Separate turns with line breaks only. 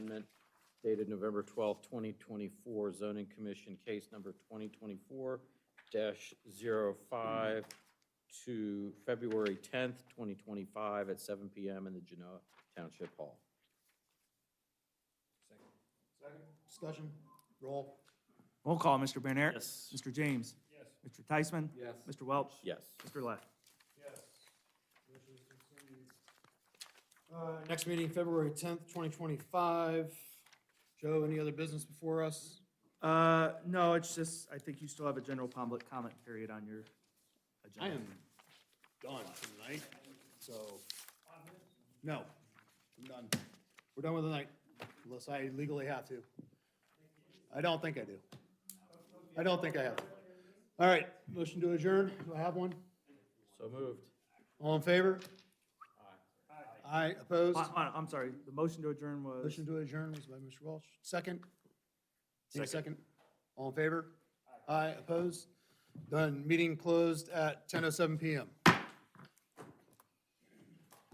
dated November 12, 2024, zoning commission case number 2024-05 to February 10th, 2025 at 7 PM in the Genoa Township Hall.
Second. Discussion, roll.
Roll call, Mr. Bernard.
Yes.
Mr. James. Yes. Mr. Tysman.
Yes.
Mr. Welch.
Yes.
Mr. Leff.
Yes. Motion is continued. Uh, Next meeting, February tenth, twenty twenty-five. Joe, any other business before us?
Uh, no, it's just, I think you still have a general public comment period on your
I
agenda.
am done tonight, so. No, I'm done. We're done with the night, unless I legally have to. I don't think I do. I don't think I have to. All right, motion to adjourn. Do I have one?
So moved.
All in favor? Aye. Aye, opposed?
Uh, uh, I'm sorry, the motion to adjourn was,
Motion to adjourn was by Mr. Welch. Second? Need a second? All in favor? Aye, opposed? Done. Meeting closed at ten oh seven PM.